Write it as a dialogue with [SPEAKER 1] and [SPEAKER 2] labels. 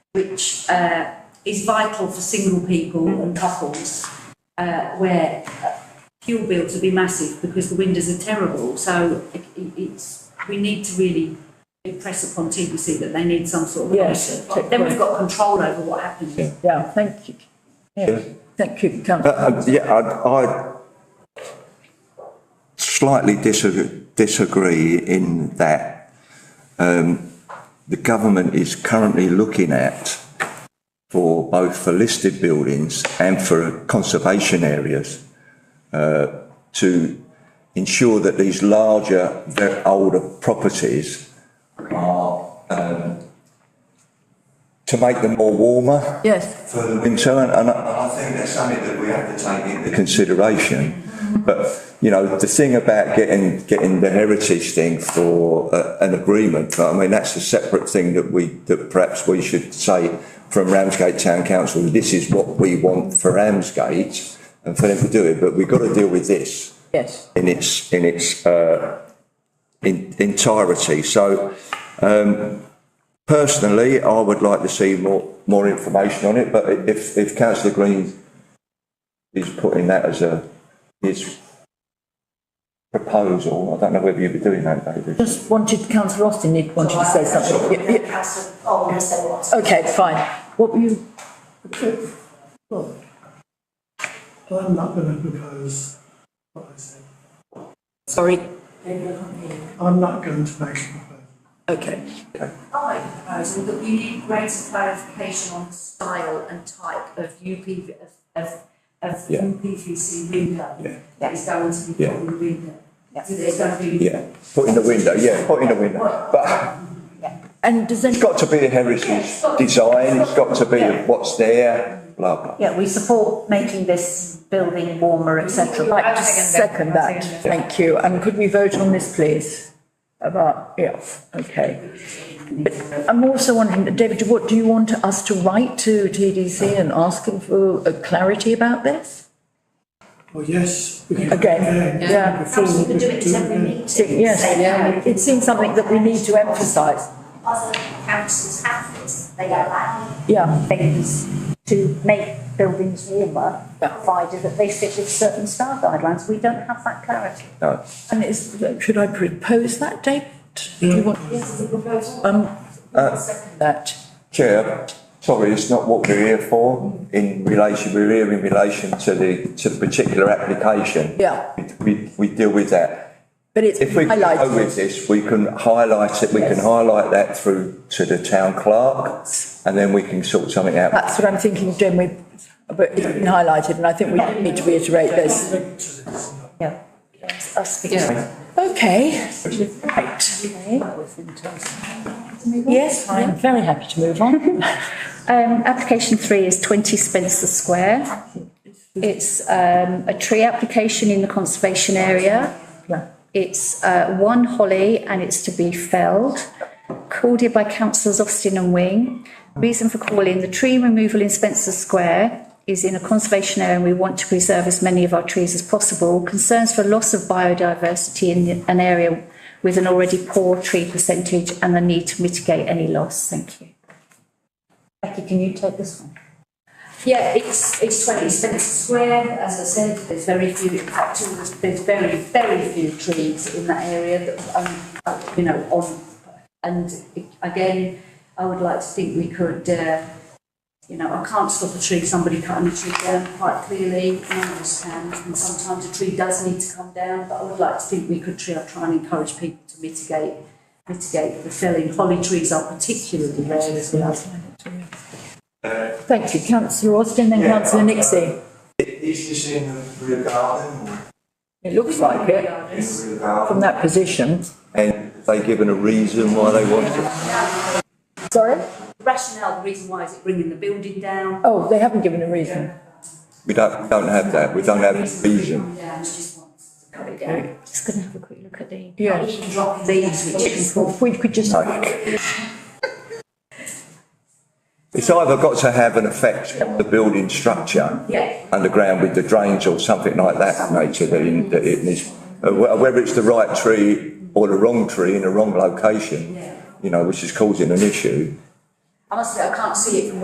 [SPEAKER 1] which uh, is vital for single people
[SPEAKER 2] Mm-hmm.
[SPEAKER 1] and couples, uh, where uh, fuel bills will be massive because the windows are terrible. So it, it- it's, we need to really impress upon TPC that they need some sort of
[SPEAKER 2] Yes,
[SPEAKER 1] policy. Then we've got control over what happens.
[SPEAKER 2] Yeah, thank you. Yeah, thank you,
[SPEAKER 3] Uh,
[SPEAKER 2] councillor.
[SPEAKER 3] uh, Yeah, I- I slightly disag- disagree in that um, the government is currently looking at for both for listed buildings and for conservation areas uh, to ensure that these larger, ve- older properties are, um, to make them more warmer
[SPEAKER 2] Yes,
[SPEAKER 3] for the winter, and, and I I think that's something that we have to take into consideration. But, you know, the thing about getting, getting the heritage thing for uh, an agreement, I mean, that's a separate thing that we, that perhaps we should say from Ramsgate Town Council, this is what we want for Ramsgate, and for them to do it, but we've got to deal with this
[SPEAKER 2] yes.
[SPEAKER 3] in its in its uh, in, entirety. So, um, personally, I would like to see more more information on it. But i- if if Councillor Green is putting that as a his proposal, I don't know whether you'd be doing that, David.
[SPEAKER 2] Just wanted, councillor Austin did wanted to say something. Yeah, yeah.
[SPEAKER 4] Council, oh, I'm saying what?
[SPEAKER 2] Okay, fine. What were you,
[SPEAKER 5] Well, I'm not going to propose what I said.
[SPEAKER 2] sorry,
[SPEAKER 5] I'm not going to make a proposal.
[SPEAKER 2] okay.
[SPEAKER 1] I proposal that we need greater clarification on the style and type of UP, of, of, of
[SPEAKER 3] Yeah.
[SPEAKER 1] UPVC window.
[SPEAKER 3] Yeah.
[SPEAKER 1] That is going to be
[SPEAKER 3] Yeah.
[SPEAKER 1] put in the window. So there's going to be.
[SPEAKER 3] Yeah, put in the window. Yeah, put in the window. But
[SPEAKER 2] And does any,
[SPEAKER 3] it's got to be a heritage design. It's got to be what's there. Blah blah.
[SPEAKER 4] Yeah, we support making this building warmer, etc.
[SPEAKER 2] like to second that? Thank you. And could we vote on this, please? About, yeah, okay. But I'm also wondering, David, what do you want us to write to TDC and ask them for uh, clarity about this?
[SPEAKER 5] Well, yes, we can.
[SPEAKER 2] Again, yeah.
[SPEAKER 5] Before
[SPEAKER 4] Perhaps we
[SPEAKER 5] we
[SPEAKER 4] could do it at every
[SPEAKER 5] again.
[SPEAKER 4] meeting.
[SPEAKER 2] Yes,
[SPEAKER 4] say how
[SPEAKER 2] it seems something that we need to emphasise.
[SPEAKER 4] Other councils have this, they allow
[SPEAKER 2] Yeah,
[SPEAKER 4] things to make buildings warmer, provided that they fit with certain star guidelines. We don't have that clarity.
[SPEAKER 3] No.
[SPEAKER 2] and is, should I propose that, David? Do you want Um,
[SPEAKER 3] Uh,
[SPEAKER 2] that?
[SPEAKER 3] Chair, sorry, it's not what we're here for in relation, we're here in relation to the, to the particular application.
[SPEAKER 2] Yeah.
[SPEAKER 3] We, we deal with that.
[SPEAKER 2] But it's
[SPEAKER 3] If we go
[SPEAKER 2] highlighted,
[SPEAKER 3] with this, we can highlight it, we can highlight that through to the town clerk and then we can sort something out.
[SPEAKER 2] that's what I'm thinking, Jim, we, but it's been highlighted and I think we need to reiterate this.
[SPEAKER 4] Yeah. Us
[SPEAKER 2] Okay, right. Yes, I'm very happy to move on.
[SPEAKER 6] Um, application three is twenty Spencer Square. It's, um, a tree application in the conservation area. It's, uh, one holly and it's to be felled. Called here by councillors Austin and Wing. Reason for calling, the tree removal in Spencer Square is in a conservation area and we want to preserve as many of our trees as possible. Concerns for loss of biodiversity in an area with an already poor tree percentage and the need to mitigate any loss. Thank you.
[SPEAKER 4] Becky, can you take this one?
[SPEAKER 1] Yeah, it's, it's twenty Spencer Square, as I said, there's very few, in fact, all the- there's very, very few trees in that area that, um, uh, you know, on. And again, I would like to think we could, uh, you know, I can't stop a tree, somebody cutting a tree down quite clearly, I understand. And sometimes a tree does need to come down, but I would like to think we could try, try and encourage people to mitigate, mitigate the felling. Holly trees are particularly rare as well.
[SPEAKER 2] Thank you, councillor Austin, then councillor Nixie.
[SPEAKER 3] Is this in the rear garden or
[SPEAKER 2] It looks like it
[SPEAKER 3] in the rear
[SPEAKER 2] from
[SPEAKER 3] garden?
[SPEAKER 2] that position.
[SPEAKER 3] And have they given a reason why they want it?
[SPEAKER 2] Sorry?
[SPEAKER 1] rationale, the reason why is it bringing the building down?
[SPEAKER 2] Oh, they haven't given a reason.
[SPEAKER 3] We don't, we don't have that, we don't have a reason.
[SPEAKER 1] Yeah, it's just wants to cut it down.
[SPEAKER 6] Just going to have a quick look at the.
[SPEAKER 2] Yes.
[SPEAKER 1] Even dropping these, which is
[SPEAKER 2] If we could just,
[SPEAKER 3] It's either got to have an effect on the building structure.
[SPEAKER 1] Yeah.
[SPEAKER 3] underground with the drains or something like that nature that, in, that it is, uh, wh- whether it's the right tree or the wrong tree in the wrong location, you know, which is causing an issue.
[SPEAKER 1] honestly, I can't see it from where